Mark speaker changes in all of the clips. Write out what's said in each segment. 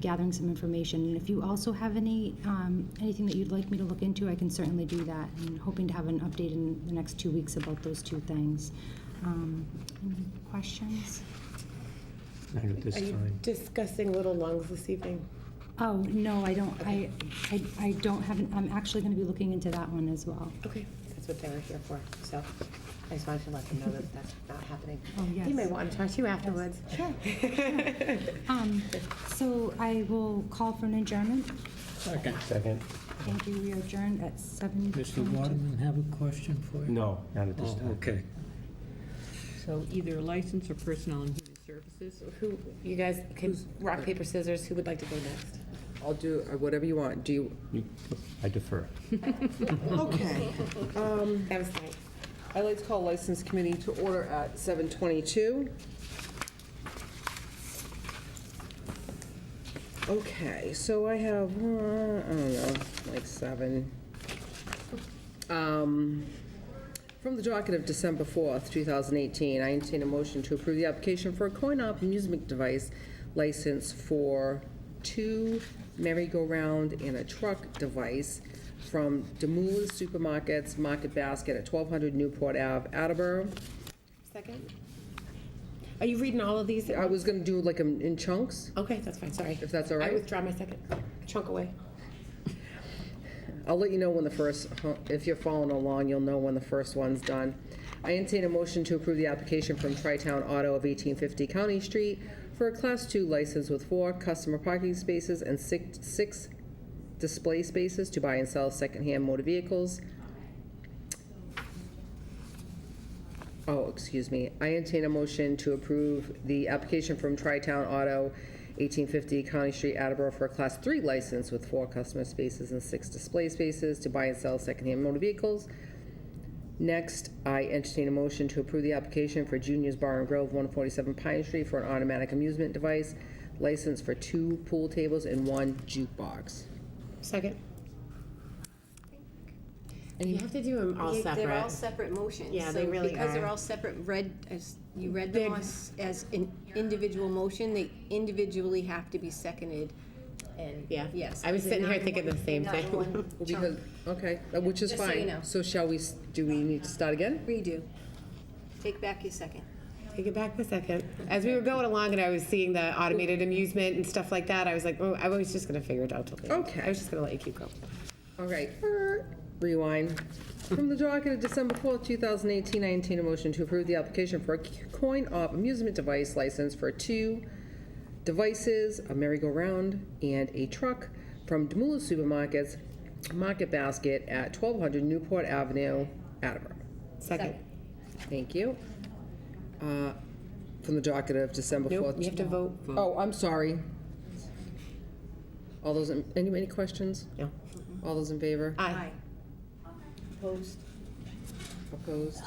Speaker 1: gathering some information. And if you also have any, um, anything that you'd like me to look into, I can certainly do that. And hoping to have an update in the next two weeks about those two things. Um, Any questions?
Speaker 2: Not at this
Speaker 3: Are you
Speaker 2: time.
Speaker 3: discussing Little Lungs this evening?
Speaker 1: Oh, no, I don't, I, I I don't have, an- I'm actually going to be looking into that one as well.
Speaker 3: Okay. That's what they were here for, so I just wanted to let them know that that's not happening.
Speaker 1: Oh, yes.
Speaker 3: You may want to talk to you afterwards.
Speaker 1: Sure. Um, So I will call for an adjournment.
Speaker 4: Second.
Speaker 2: Second?
Speaker 1: Thank you, we are adjourned at seven.
Speaker 4: Mr. Waterman have a question for you?
Speaker 2: No, not at this
Speaker 4: Oh,
Speaker 2: time.
Speaker 4: okay.
Speaker 5: So either license or personnel and human services?
Speaker 3: Who, you guys, can, rock, paper, scissors, who would like to go next?
Speaker 6: I'll do uh, whatever you want. Do you,
Speaker 2: You- I defer.
Speaker 6: okay.
Speaker 3: That was nice.
Speaker 6: I'd like to call License Committee to order at 7:22. Okay, so I have, uh, I don't know, like seven. Um, From the docket of December 4th, 2018, I entertain a motion to approve the application for a coin-op amusement device license for two merry-go-round and a truck device from Demoulas Supermarkets Market Basket at 1200 Newport Ave, Attleboro.
Speaker 3: Second? Are you reading all of these?
Speaker 6: I was going to do like 'em in chunks,
Speaker 3: Okay, that's fine, sorry.
Speaker 6: if that's all right.
Speaker 3: I withdraw my second. Chunk away.
Speaker 6: I'll let you know when the first, if you're following along, you'll know when the first one's done. I entertain a motion to approve the application from Tri-Town Auto of 1850 County Street for a Class 2 license with four customer parking spaces and six six display spaces to buy and sell secondhand motor vehicles. Oh, excuse me. I entertain a motion to approve the application from Tri-Town Auto, 1850 County Street, Attleboro, for a Class 3 license with four customer spaces and six display spaces to buy and sell secondhand motor vehicles. Next, I entertain a motion to approve the application for Junior's Bar and Grove, 147 Pine Street, for an automatic amusement device license for two pool tables and one jukebox.
Speaker 3: Second? And you have to do them all
Speaker 7: Yeah,
Speaker 3: separate.
Speaker 7: They're all separate motions.
Speaker 3: Yeah, they
Speaker 7: so
Speaker 3: really
Speaker 7: Because they're
Speaker 3: are.
Speaker 7: all separate, read, as, you read them
Speaker 3: They're-
Speaker 7: as, as an individual motion, they individually have to be seconded, and,
Speaker 3: Yeah.
Speaker 7: yes.
Speaker 3: I was
Speaker 7: they're
Speaker 3: sitting here
Speaker 7: not in
Speaker 3: thinking
Speaker 7: one-
Speaker 3: the same
Speaker 7: not in
Speaker 3: thing.
Speaker 7: one
Speaker 6: Because,
Speaker 7: chunk.
Speaker 6: okay, uh, which is
Speaker 7: Just so you
Speaker 6: fine.
Speaker 7: know.
Speaker 6: So shall we, s- do we need to start again?
Speaker 7: Redo. Take back your second.
Speaker 3: Take it back the second. As we were going along and I was seeing the automated amusement and stuff like that, I was like, oh, I was just gonna figure it out till the end.
Speaker 6: Okay.
Speaker 3: I was just gonna let you keep going.
Speaker 6: All right, rewind. From the docket of December 4th, 2018, I entertain a motion to approve the application for a coin-op amusement device license for two devices, a merry-go-round, and a truck from Demula Supermarkets Market Basket at 1200 Newport Avenue, Attleboro.
Speaker 3: Second.
Speaker 6: Thank you. Uh, From the docket of December 4th.
Speaker 3: Nope, you have to vote.
Speaker 6: Oh, I'm sorry. All those, in- any, any questions?
Speaker 3: No.
Speaker 6: All those in favor?
Speaker 3: Aye.
Speaker 7: Opposed?
Speaker 6: Opposed?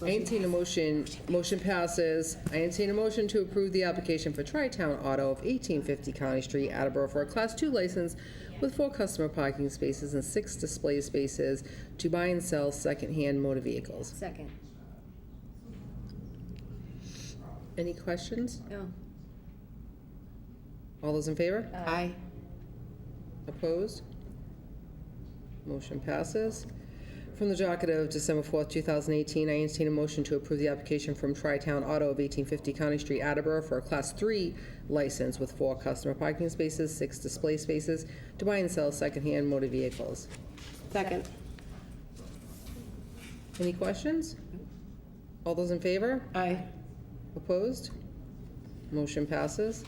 Speaker 6: I entertain a motion, motion passes. I entertain a motion to approve the application for Tri-Town Auto of 1850 County Street, Attleboro, for a Class 2 license with four customer parking spaces and six display spaces to buy and sell secondhand motor vehicles.
Speaker 7: Second.
Speaker 6: Any questions?
Speaker 7: No.
Speaker 6: All those in favor?
Speaker 3: Aye.
Speaker 6: Opposed? Motion passes. From the docket of December 4th, 2018, I entertain a motion to approve the application from Tri-Town Auto of 1850 County Street, Attleboro, for a Class 3 license with four customer parking spaces, six display spaces, to buy and sell secondhand motor vehicles.
Speaker 3: Second.
Speaker 6: Any questions? All those in favor?
Speaker 3: Aye.
Speaker 6: Opposed? Motion passes.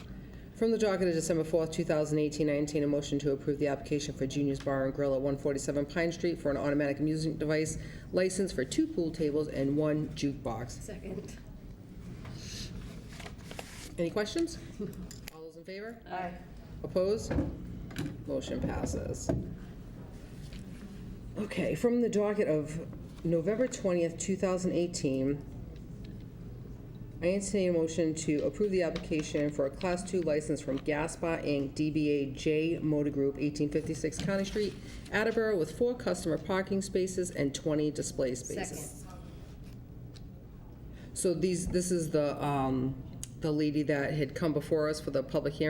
Speaker 6: From the docket of December 4th, 2018, I entertain a motion to approve the application for Junior's Bar and Grill at 147 Pine Street for an automatic amusement device license for two pool tables and one jukebox.
Speaker 7: Second.
Speaker 6: Any questions? All those in favor?
Speaker 7: Aye.
Speaker 6: Opposed? Motion passes. Okay, from the docket of November 20th, 2018, I entertain a motion to approve the application for a Class 2 license from Gaspa Inc., DBA J Motor Group, 1856 County Street, Attleboro, with four customer parking spaces and 20 display
Speaker 7: Second.
Speaker 6: spaces. So these, this is the, um, the lady that had come before us for the public hearing